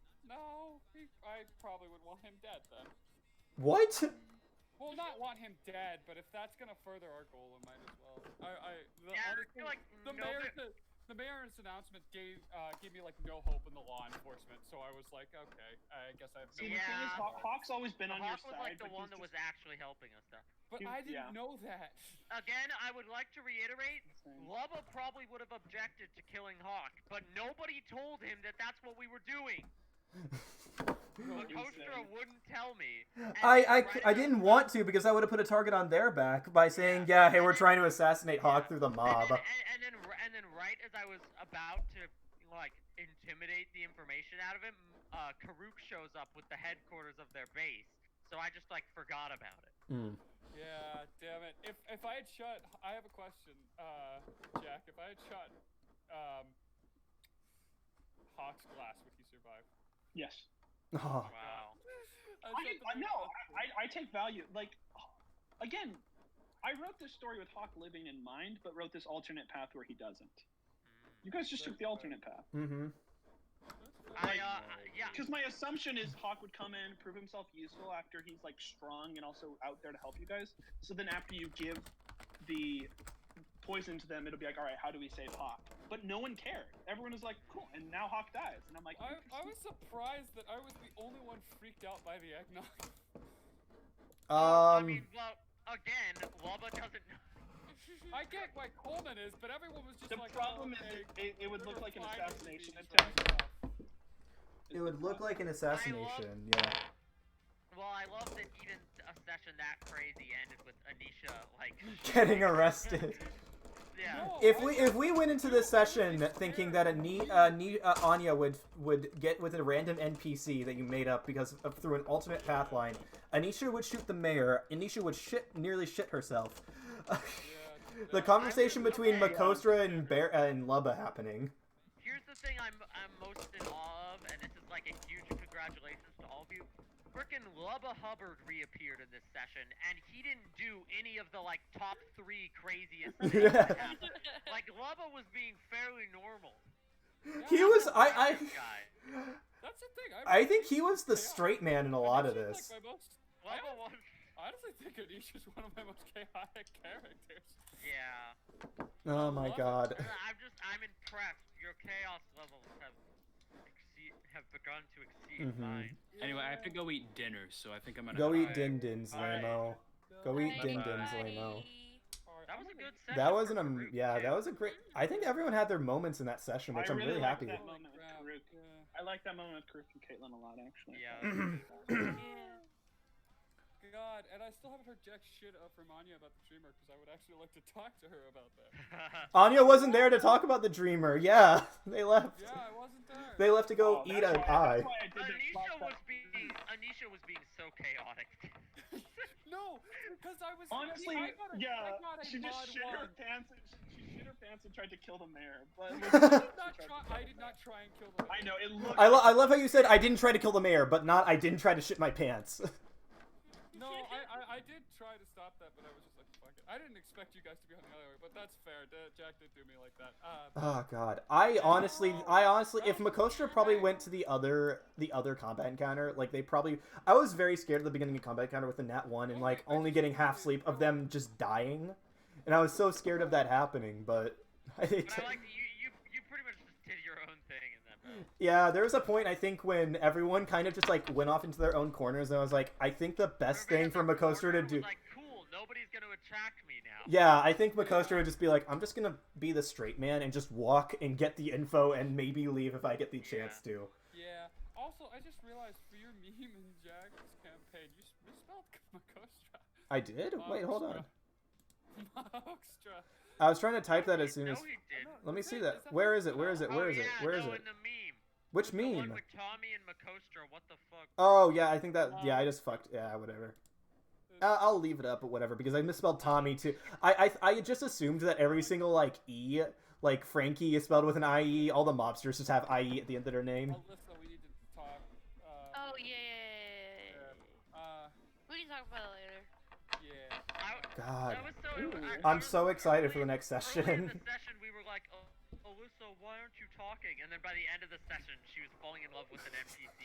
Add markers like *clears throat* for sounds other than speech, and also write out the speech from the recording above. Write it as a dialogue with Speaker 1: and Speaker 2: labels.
Speaker 1: I probably would want him dead then.
Speaker 2: What?
Speaker 1: Well, not want him dead, but if that's gonna further our goal, it might as well. I, I, the,
Speaker 3: Yeah, I
Speaker 1: honestly,
Speaker 3: feel like
Speaker 1: the
Speaker 3: no
Speaker 1: mayor's
Speaker 3: bit-
Speaker 1: the mayor's announcement gave uh, gave me like no hope in the law enforcement, so I was like, okay, I guess I have. No
Speaker 4: See,
Speaker 1: hope.
Speaker 4: the thing is,
Speaker 3: Yeah.
Speaker 4: Haw- Hawk's always been on your
Speaker 3: Hawk was
Speaker 4: side.
Speaker 3: like the
Speaker 4: but
Speaker 3: one
Speaker 4: he's
Speaker 3: that was
Speaker 4: just-
Speaker 3: actually helping us though.
Speaker 1: But
Speaker 4: Dude,
Speaker 1: I didn't
Speaker 4: yeah.
Speaker 1: know that. *laughs*
Speaker 3: Again, I would like to reiterate,
Speaker 4: Same.
Speaker 3: Lubba probably would have objected to killing Hawk, but nobody told him that that's what we were doing. Makostra
Speaker 4: Insane.
Speaker 3: wouldn't tell me. and
Speaker 2: I, I,
Speaker 3: then right
Speaker 2: I
Speaker 3: after
Speaker 2: didn't
Speaker 3: that-
Speaker 2: want to because I would have put a target on their back by saying, yeah, hey,
Speaker 3: *laughs*
Speaker 2: we're trying to assassinate Hawk through Ah, the
Speaker 3: And
Speaker 2: mob.
Speaker 3: *laughs* then, and, and then, r- and then, right as I was about to like intimidate the information out of him, uh, Karuk shows up with the headquarters of their base. So I just like forgot about it.
Speaker 2: Mm.
Speaker 1: Yeah, damn it. If if I had shot, I have a question, uh, Jack. If I had shot, um, Hawk's glass, would he survive?
Speaker 4: Yes.
Speaker 2: Oh.
Speaker 3: Wow.
Speaker 1: *laughs* I shot the
Speaker 4: I, I
Speaker 1: big
Speaker 4: no,
Speaker 1: glass.
Speaker 4: I, I take value. Like, again, I wrote this story with Hawk living in mind, but wrote this alternate path where he doesn't. You guys just took the alternate path.
Speaker 2: Mm-hmm.
Speaker 3: I uh, yeah.
Speaker 4: Because my assumption is Hawk would come in, prove himself useful after he's like strong and also out there to help you guys. So then after you give the poison to them, it'll be like, all right, how do we save Hawk? But no one cared. Everyone was like, cool. And now Hawk dies, and I'm like,
Speaker 1: I, I was surprised that I was the only one freaked out by the eggnog. *laughs*
Speaker 3: I
Speaker 2: Um,
Speaker 3: mean, well, again, Lubba doesn't. *laughs*
Speaker 1: I get why Coleman is, but everyone was just
Speaker 4: the
Speaker 1: like, oh,
Speaker 4: problem is
Speaker 1: okay,
Speaker 4: it, it, it would
Speaker 1: they're
Speaker 4: look like an
Speaker 1: finally
Speaker 4: assassination
Speaker 1: being
Speaker 4: attempt.
Speaker 1: tracked down.
Speaker 2: it would look like an assassination, yeah.
Speaker 3: Well, I love that even a session that crazy ended with Anisha
Speaker 2: *laughs*
Speaker 3: like *laughs*
Speaker 2: Getting arrested.
Speaker 3: Yeah.
Speaker 1: No,
Speaker 2: If
Speaker 1: I
Speaker 2: we
Speaker 1: was
Speaker 2: if we went into this session thinking that a Ni, uh, Ni, uh, Anya would would get with a random NPC that you made up because of, through an alternate path line, Anisha would shoot the mayor. Anisha would shit nearly shit herself. *laughs*
Speaker 1: Yeah,
Speaker 2: the
Speaker 1: no,
Speaker 2: conversation
Speaker 3: I would-
Speaker 2: between
Speaker 3: okay,
Speaker 2: Makostra and Bear uh, and Lubba happening.
Speaker 3: Here's the thing I'm I'm most in awe of, and this is like a huge congratulations to all of you. Frickin' Lubba Hubbard reappeared in this session, and he didn't do any of the like top three
Speaker 2: *laughs*
Speaker 3: craziest things.
Speaker 2: Yeah.
Speaker 3: that happened. Like Lubba was being fairly normal.
Speaker 2: He was I
Speaker 3: This guy.
Speaker 2: I
Speaker 1: That's the thing. I,
Speaker 2: I think he was the straight man in a lot of
Speaker 1: Anisha's,
Speaker 2: this.
Speaker 1: Like my most, I
Speaker 3: Lubba was.
Speaker 1: honestly think Anisha's one of my most chaotic *laughs* characters.
Speaker 3: Yeah.
Speaker 2: Oh my god.
Speaker 3: I'm just I'm impressed. Your chaos levels have exceed, have begun to exceed
Speaker 2: Mhm.
Speaker 3: mine.
Speaker 5: Anyway, I have to go eat dinner, so I think I'm gonna.
Speaker 2: Go eat
Speaker 5: hide.
Speaker 2: din dins,
Speaker 3: Alright.
Speaker 2: Lamo. Go eat
Speaker 5: Bye,
Speaker 2: din dins,
Speaker 5: everybody.
Speaker 2: Lamo.
Speaker 3: That was a good session.
Speaker 2: That
Speaker 3: for
Speaker 2: wasn't a
Speaker 3: Farouk,
Speaker 2: yeah.
Speaker 3: too.
Speaker 2: That was a great. I think everyone had their moments in that session, which
Speaker 4: I
Speaker 2: I'm
Speaker 4: really
Speaker 2: really
Speaker 4: liked
Speaker 2: happy. with.
Speaker 4: that. moment with Karuk. I like that moment with Kirk and Caitlin a lot,
Speaker 3: *laughs*
Speaker 4: actually.
Speaker 2: *laughs*
Speaker 3: Yeah.
Speaker 1: *clears throat* God, and I still haven't heard jack shit up from Anya about the dreamer because I would actually like to talk to her about that.
Speaker 2: Anya wasn't there to talk about the dreamer. Yeah, *laughs* they left.
Speaker 1: Yeah, I wasn't there.
Speaker 2: *laughs* They left to go
Speaker 4: Oh,
Speaker 2: eat an
Speaker 4: that's
Speaker 2: eye.
Speaker 4: why- That's why I did
Speaker 3: *laughs* Anisha
Speaker 4: that slap
Speaker 3: was
Speaker 4: that-
Speaker 3: being Anisha was being so chaotic.
Speaker 1: No, because I was
Speaker 4: Honestly,
Speaker 1: I got a,
Speaker 4: yeah,
Speaker 1: I got a
Speaker 4: she
Speaker 1: mod
Speaker 4: just shit
Speaker 1: one.
Speaker 4: her pants. And she, she shit her pants and tried to kill the mayor.
Speaker 1: *laughs*
Speaker 4: But *laughs*
Speaker 1: I did
Speaker 2: I
Speaker 1: not try. I did not try and kill the.
Speaker 4: I know it looked.
Speaker 2: lo- I love how you said I didn't try to kill the mayor, but not I didn't try to shit my pants. *laughs*
Speaker 1: No, I, I, I did try to stop that, but I was just like, fuck it. I didn't expect you guys to be on the other way, but that's fair. D- Jack did do me like that. Uh,
Speaker 2: oh god. I honestly, I honestly, if Makostra probably went to the other, the other combat encounter, like they probably, I was very scared at the beginning of combat encounter with the nat one and like only getting half sleep of them just dying, and I was so scared of that happening, but. *laughs* I think.
Speaker 3: But I like that you you you pretty much just did your own thing in that. Battle.
Speaker 2: Yeah, there was a point I think when everyone kind of just like went off into their own corners, and I was like, I think the best
Speaker 3: Everybody
Speaker 2: thing
Speaker 3: at
Speaker 2: for
Speaker 3: the
Speaker 2: Makostra to
Speaker 3: corner was
Speaker 2: do.
Speaker 3: Like cool, nobody's gonna attack me now.
Speaker 2: Yeah, I think Makostra would just be like, I'm just gonna be the straight man and just walk and get the info and maybe leave if I get the chance to.
Speaker 1: yeah. Also, I just realized for your *laughs* meme in Jack's campaign, you s- *laughs* misspelled Makostra.
Speaker 2: I did?
Speaker 3: Oh,
Speaker 2: Wait, hold on.
Speaker 1: Makostra.
Speaker 2: I was trying to type that as soon
Speaker 3: no,
Speaker 2: as.
Speaker 3: he did.
Speaker 2: Let me see that. Where is it? Where is it? Where is
Speaker 3: oh,
Speaker 2: it?
Speaker 3: yeah,
Speaker 2: Where is
Speaker 3: no,
Speaker 2: it?
Speaker 3: in the meme.
Speaker 2: Which
Speaker 3: The one
Speaker 2: meme?
Speaker 3: with Tommy and Makostra. What the fuck?
Speaker 2: Oh yeah, I think that.
Speaker 3: Um,
Speaker 2: Yeah, I just fucked. Yeah, whatever. Uh, I'll leave it up, but whatever, because I misspelled Tommy too. I, I I just assumed that every single like e, like Frankie is spelled with an i e. All the mobsters just have i e at the end of their name.
Speaker 1: Alyssa, we need to talk. Uh,
Speaker 6: *clears throat* Oh yeah, yeah, yeah, yeah, yeah.
Speaker 1: uh,
Speaker 6: We can talk about it later.
Speaker 1: yeah.
Speaker 3: I,
Speaker 2: God,
Speaker 3: that was so.
Speaker 1: Ooh.
Speaker 3: I- I
Speaker 2: I'm
Speaker 3: was-
Speaker 2: so excited for the
Speaker 3: earlier-
Speaker 2: next
Speaker 3: Earlier in
Speaker 2: session.
Speaker 3: the session, we were like, oh, Alyssa, why aren't you talking? And then by the end of the session, she was falling in love with an NPC.